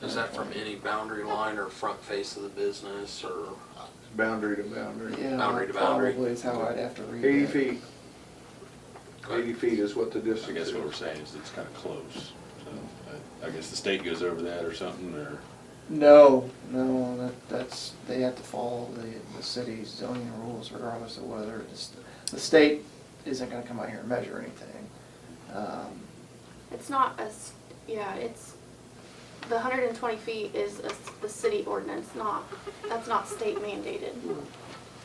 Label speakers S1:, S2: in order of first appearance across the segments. S1: that from any boundary line or front face of the business or?
S2: boundary to boundary.
S3: Yeah,
S1: Boundary to boundary.
S3: Probably is how I'd have to read it.
S2: Eighty feet, eighty feet is what the
S4: I
S2: distance
S4: guess
S2: is.
S4: what we're saying is it's kind of close. So I I guess the state goes over that or something, or,
S3: No, no, that, that's, they have to follow the, the city's zoning rules regardless of whether it's, the state isn't gonna come out here and measure anything. Um,
S5: It's not a, s- yeah, it's, the hundred and twenty feet is a s the city ordinance, not, that's not state mandated.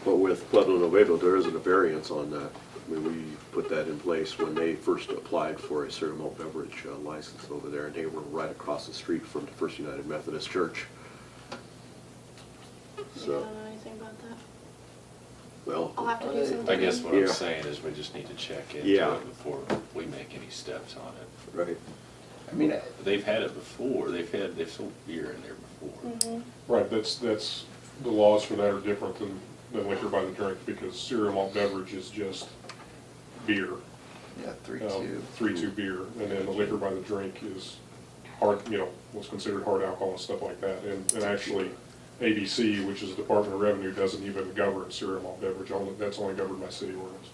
S6: But with Pueblo Nuevo, there isn't a variance on that. I mean, we put that in place when they first applied for a certain malt beverage uh, license over there, and they were right across the street from the First United Methodist Church.
S5: You
S6: So,
S5: don't know anything about that? I'll
S6: well,
S5: have to do some.
S4: I guess what I'm
S6: Yeah.
S4: saying is we just need to check into
S6: Yeah.
S4: it before we make any steps on it.
S6: right,
S3: I mean, I-
S4: They've had it before, they've had, they've sold beer in there before.
S5: Mhm.
S7: Right, that's, that's, the laws for that are different than, than liquor by the drink, because cereal malt beverage is just beer.
S3: yeah, three,
S7: Oh.
S3: two.
S7: Three-two beer, and then the liquor by the drink is hard, you know, what's considered hard alcohol and stuff like that. And, and actually, ABC, which is the Department of Revenue, doesn't even govern cereal malt beverage, only, that's only governed by city ordinance.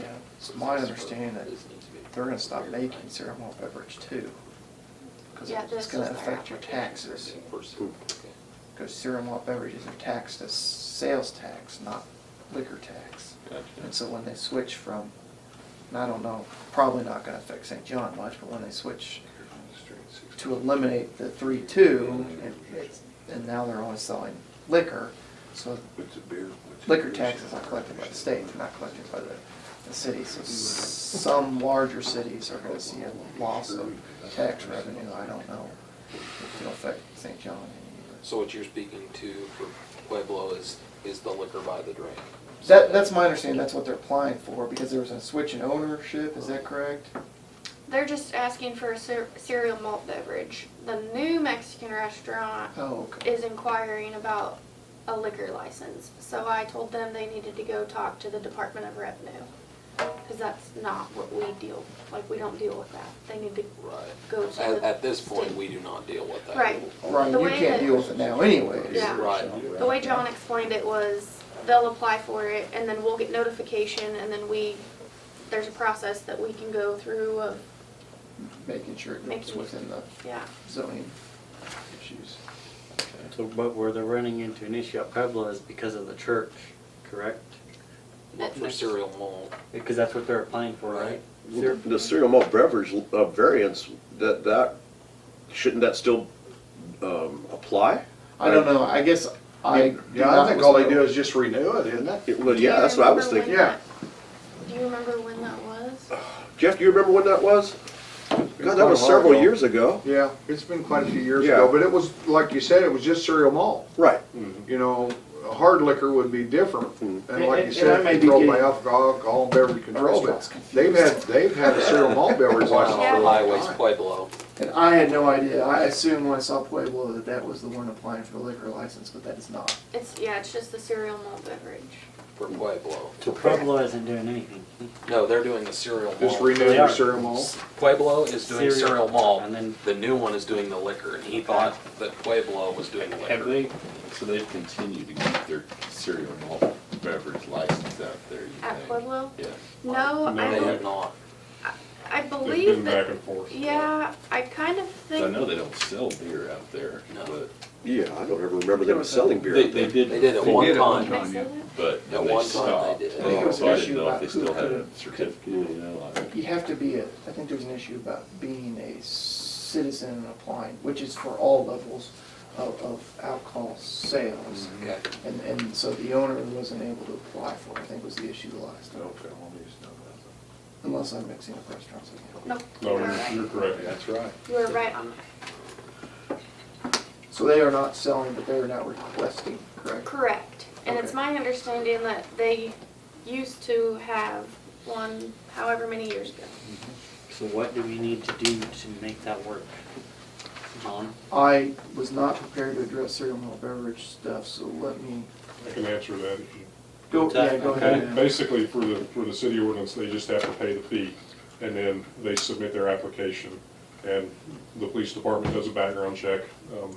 S3: Yeah, it's my understanding that they're gonna stop making cereal malt beverage too. Cause
S5: Yeah,
S3: it's
S5: this
S3: gonna
S5: is their
S3: affect your taxes, cause cereal malt beverages are taxed as sales tax, not liquor tax. And
S4: Gotcha.
S3: so when they switch from, and I don't know, probably not gonna affect St. John much, but when they switch to eliminate the three-two, and, and now they're only selling liquor, so liquor taxes are collected by the state, they're not collected by the, the city. So s- some larger cities are gonna see a loss of tax revenue, I don't know if it'll affect St. John any.
S1: So what you're speaking to for Pueblo is, is the liquor by the drink?
S3: That, that's my understanding, that's what they're applying for, because there was a switch in ownership, is that correct?
S5: They're just asking for a cer- cereal malt beverage. The new Mexican restaurant
S3: Oh, okay.
S5: is inquiring about a liquor license. So I told them they needed to go talk to the Department of Revenue. Cause that's not what we deal, like, we don't deal with that. They need to
S1: Right.
S5: go to
S1: At,
S5: the.
S1: at this point, we do not deal with that.
S5: Right.
S3: Right,
S5: The
S3: you
S5: way
S3: can't
S5: that-
S3: deal with it now anyways.
S5: Yeah.
S1: Right.
S5: The way John explained it was they'll apply for it and then we'll get notification and then we, there's a process that we can go through of,
S3: Making sure it goes
S5: Making-
S3: within the
S5: yeah.
S3: zoning issues.
S8: So, but where they're running into an issue at Pueblo is because of the church, correct?
S1: Look for cereal malt.
S8: Because that's what they're applying for, right? They're-
S6: the cereal malt beverage uh, variance, that, that, shouldn't that still um, apply?
S3: I don't know, I guess I.
S2: Yeah, I think all they do is just renew it, isn't it?
S6: It- Well, yeah, that's what I was
S5: Do you
S6: thinking.
S5: remember when that- Do you remember when that was?
S6: Jeff, do you remember when that was? God, that was
S2: quite a while
S6: several
S2: ago.
S6: years ago.
S2: Yeah, it's been quite a few years
S6: Yeah.
S2: ago, but it was, like you said, it was just cereal malt.
S6: Right.
S2: You know, hard liquor would be different, and like you
S8: And- and I
S2: said,
S8: may be
S2: controlled by
S8: getting-
S2: alcohol, alcohol and beverage control,
S3: Restaurants
S2: but
S3: confused.
S2: they've had, they've had a cereal malt beverage license for a
S1: National
S2: long
S1: Highways
S2: time.
S1: Pueblo.
S3: And I had no idea, I assumed when I saw Pueblo that that was the one applying for the liquor license, but that is not.
S5: It's, yeah, it's just the cereal malt beverage.
S1: for Pueblo.
S8: So Pueblo isn't doing anything.
S1: No, they're doing the cereal
S2: Just
S1: malt.
S2: renew
S8: They
S2: your
S8: are.
S2: cereal malt.
S1: Pueblo is doing
S8: Cereal.
S1: cereal malt.
S8: And then-
S1: The new one is doing the liquor, and he thought that Pueblo was doing the
S4: Have
S1: liquor.
S4: they, so they've continued to keep their cereal malt beverage license out there, you think?
S5: At Pueblo?
S4: Yeah.
S5: No,
S7: No,
S5: I
S1: They have
S5: don't,
S1: not.
S5: I
S7: They've
S5: believe
S7: been back
S5: that,
S7: and forth.
S5: yeah, I kind of
S4: 'Cause I
S5: think,
S4: know they don't sell beer out there,
S1: No.
S4: but
S6: Yeah, I don't ever remember them selling beer.
S4: they, they did.
S1: They did at one
S5: can I
S1: time.
S5: say that?
S4: But
S1: At
S4: then
S1: one
S4: they
S1: time they
S4: stopped. Oh,
S1: did. I
S3: think it was
S4: So I
S3: an issue
S4: didn't know if
S3: about
S4: they
S3: who
S4: still had a
S3: could've-
S4: certificate, you know, like.
S3: You have to be a, I think there's an issue about being a citizen and applying, which is for all levels of, of alcohol sales.
S1: Okay.
S3: And, and so the owner wasn't able to apply for, it, I think was the issue last time, unless I'm mixing up restaurants again.
S5: no,
S7: No,
S1: Oh,
S5: you were
S7: you're,
S5: right.
S7: you're correct.
S2: That's right.
S5: You were right on that.
S3: So they are not selling, but they are not requesting, correct?
S5: Correct. And it's
S3: Okay.
S5: my understanding that they used to have one however many years ago.
S8: So what do we need to do to make that work? John?
S3: I was not prepared to address cereal malt beverage stuff, so let me
S7: I can answer that if you
S3: go, yeah, go
S8: Okay.
S3: ahead. now.
S7: Basically, for the, for the city ordinance, they just have to pay the fee, and then they submit their application, and the police department does a background check. Um,